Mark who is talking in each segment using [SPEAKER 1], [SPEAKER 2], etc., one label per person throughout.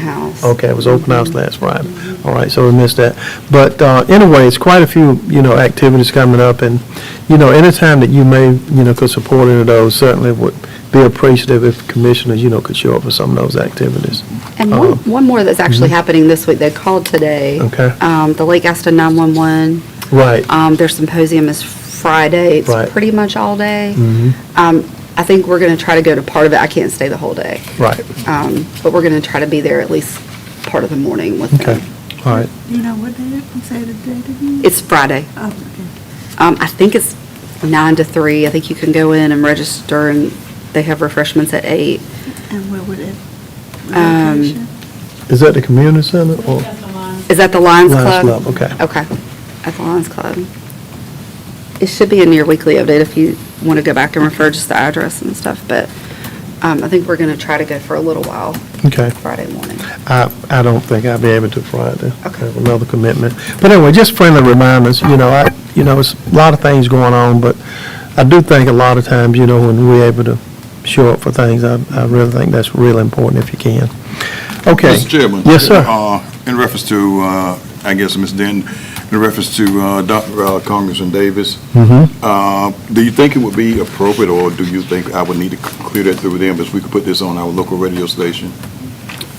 [SPEAKER 1] house.
[SPEAKER 2] Okay, it was open house last Friday. All right, so we missed that. But uh, anyway, it's quite a few, you know, activities coming up, and, you know, anytime that you may, you know, could support any of those, certainly would be appreciative if commissioners, you know, could show up for some of those activities.
[SPEAKER 1] And one,
[SPEAKER 2] Um,
[SPEAKER 1] one more that's actually happening this week, they called today.
[SPEAKER 2] Okay.
[SPEAKER 1] Um, the Lake Gaston 911,
[SPEAKER 2] Right.
[SPEAKER 1] um, their symposium is Friday.
[SPEAKER 2] Right. Mm-hmm.
[SPEAKER 1] It's pretty much all day. Um, I think we're going to try to go to part of it. I can't stay the whole day.
[SPEAKER 2] Right.
[SPEAKER 1] Um, but we're going to try to be there at least part of the morning with
[SPEAKER 2] Okay,
[SPEAKER 1] them.
[SPEAKER 2] all right.
[SPEAKER 3] You know what day, you say the date again?
[SPEAKER 1] It's Friday.
[SPEAKER 3] Oh, okay.
[SPEAKER 1] Um, I think it's nine to three. I think you can go in and register and they have refreshments at eight.
[SPEAKER 3] And where would it,
[SPEAKER 1] Um,
[SPEAKER 3] location?
[SPEAKER 2] Is that the community center or?
[SPEAKER 1] Is that the Lions
[SPEAKER 2] Lions
[SPEAKER 1] Club?
[SPEAKER 2] Club, okay.
[SPEAKER 1] Okay, at the Lions Club. It should be in your weekly update if you want to go back and refer just the address and stuff, but um, I think we're going to try to go for a little while
[SPEAKER 2] Okay.
[SPEAKER 1] Friday morning.
[SPEAKER 2] I, I don't think I'll be able to Friday. I
[SPEAKER 1] Okay.
[SPEAKER 2] have another commitment. But anyway, just friendly reminders, you know, I, you know, it's a lot of things going on, but I do think a lot of times, you know, when we're able to show up for things, I, I really think that's really important if you can. Okay.
[SPEAKER 4] Mr. Chairman.
[SPEAKER 2] Yes, sir.
[SPEAKER 4] Uh, In reference to, uh, I guess, Ms. Denton, in reference to uh, Dr. uh, Congressman Davis,
[SPEAKER 2] Mm-hmm.
[SPEAKER 4] uh, do you think it would be appropriate, or do you think I would need to clear that through them, if we could put this on our local radio station?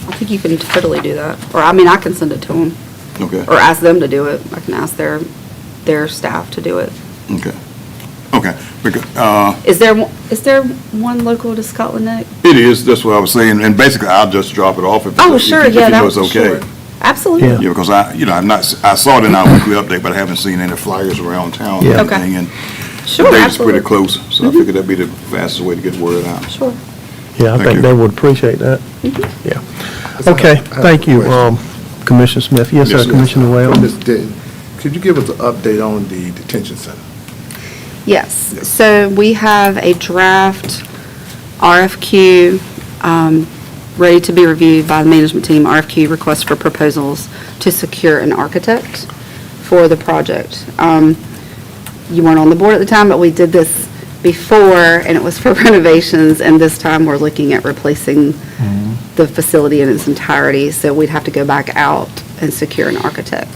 [SPEAKER 1] I think you can totally do that, or I mean, I can send it to them,
[SPEAKER 4] Okay,
[SPEAKER 1] or ask them to do it. I can ask their, their staff to do it.
[SPEAKER 4] okay, okay. Because, uh,
[SPEAKER 1] Is there, one- is there one local to Scotland Neck?
[SPEAKER 4] It is, that's what I was saying, and basically, I'll just drop it off if
[SPEAKER 1] Oh,
[SPEAKER 4] if you
[SPEAKER 1] sure, yeah, that,
[SPEAKER 4] know it's
[SPEAKER 1] sure.
[SPEAKER 4] okay.
[SPEAKER 1] Absolutely.
[SPEAKER 4] Yeah, because I, you know, I'm not, s- I saw it in our weekly update, but I haven't seen any flyers around town or
[SPEAKER 2] Yeah.
[SPEAKER 1] Okay.
[SPEAKER 4] anything, and the
[SPEAKER 1] Sure,
[SPEAKER 4] date is pretty
[SPEAKER 1] absolutely. Mm-hmm.
[SPEAKER 4] close, so I figured that'd be the fastest way to get word out.
[SPEAKER 1] Sure. Mm-hmm.
[SPEAKER 2] Yeah, I
[SPEAKER 4] Thank
[SPEAKER 2] think
[SPEAKER 4] you.
[SPEAKER 2] they would appreciate that. Yeah. Okay, thank you, um, Commissioner Smith. Yes,
[SPEAKER 4] Yes,
[SPEAKER 2] sir,
[SPEAKER 4] sir.
[SPEAKER 2] Commissioner Wales.
[SPEAKER 5] Ms. Denton, could you give us an update on the detention center?
[SPEAKER 1] Yes, so we have a draft RFQ um, ready to be reviewed by the management team, RFQ request for proposals to secure an architect for the project. Um, You weren't on the board at the time, but we did this before, and it was for renovations, and this time we're looking at replacing the facility in its entirety, so we'd have to go back out and secure an architect.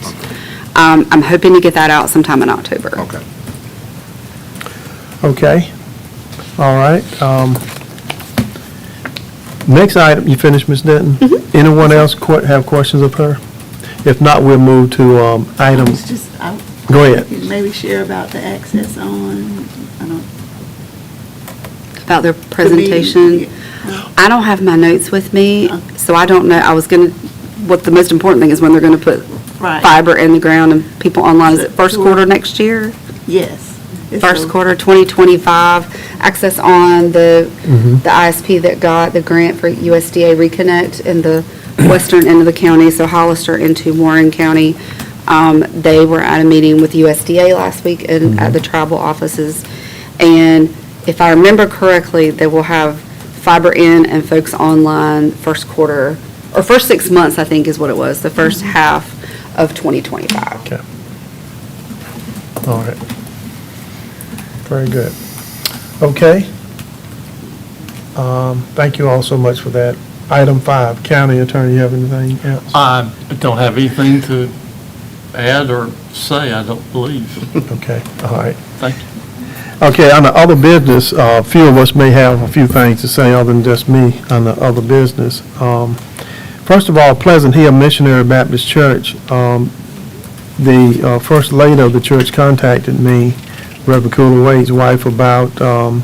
[SPEAKER 1] Um, I'm hoping to get that out sometime in October.
[SPEAKER 4] Okay.
[SPEAKER 2] Okay, all right. um, Next item, you finished, Ms. Denton? Anyone else que- have questions of her? If not, we'll move to um, item,
[SPEAKER 3] It's just, I,
[SPEAKER 2] go ahead.
[SPEAKER 3] maybe share about the access on, I don't.
[SPEAKER 1] about their presentation. I don't have my notes with me, so I don't know, I was going to, what the most important thing is when they're going to put
[SPEAKER 3] Right.
[SPEAKER 1] fiber in the ground and people online, is it first quarter next year?
[SPEAKER 3] Yes. It's
[SPEAKER 1] First
[SPEAKER 3] a-
[SPEAKER 1] quarter 2025, access on the, the ISP that got the grant for USDA Reconnect in the western end of the county, so Hollister into Warren County. Um, They were at a meeting with USDA last week and at the tribal offices. And if I remember correctly, they will have fiber in and folks online first quarter, or first six months, I think is what it was, the first half of 2025.
[SPEAKER 2] Okay. All right. Very good. Okay. Um, Thank you all so much for that. Item five, county attorney, you have anything else?
[SPEAKER 6] I don't have anything to add or say, I don't believe.
[SPEAKER 2] Okay, all right.
[SPEAKER 6] Thank you.
[SPEAKER 2] Okay, on the other business, uh, a few of us may have a few things to say other than just me on the other business. Um, First of all, Pleasant Hill Missionary Baptist Church, um, the uh, first lady of the church contacted me, Reverend Cooler Wade's wife, about, um,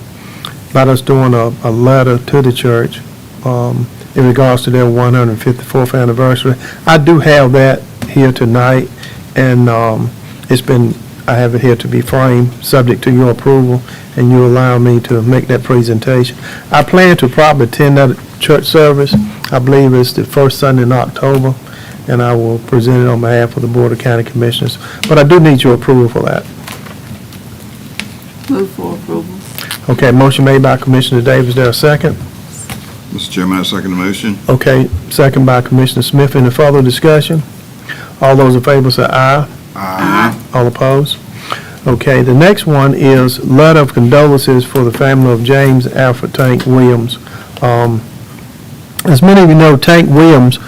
[SPEAKER 2] about us doing a, a letter to the church um, in regards to their 154th anniversary. I do have that here tonight, and um, it's been, I have it here to be framed, subject to your approval, and you allow me to make that presentation. I plan to probably attend that church service. I believe it's the first Sunday in October, and I will present it on behalf of the Board of County Commissioners. But I do need your approval for that.
[SPEAKER 3] Move for approval.
[SPEAKER 2] Okay, motion made by Commissioner Davis, there a second?
[SPEAKER 4] Mr. Chairman, I second the motion.
[SPEAKER 2] Okay, second by Commissioner Smith. Any further discussion? All those in favor say aye.
[SPEAKER 4] Aye.
[SPEAKER 2] All opposed? Okay, the next one is letter of condolences for the family of James Alfred Tank Williams. Um, As many of you know, Tank Williams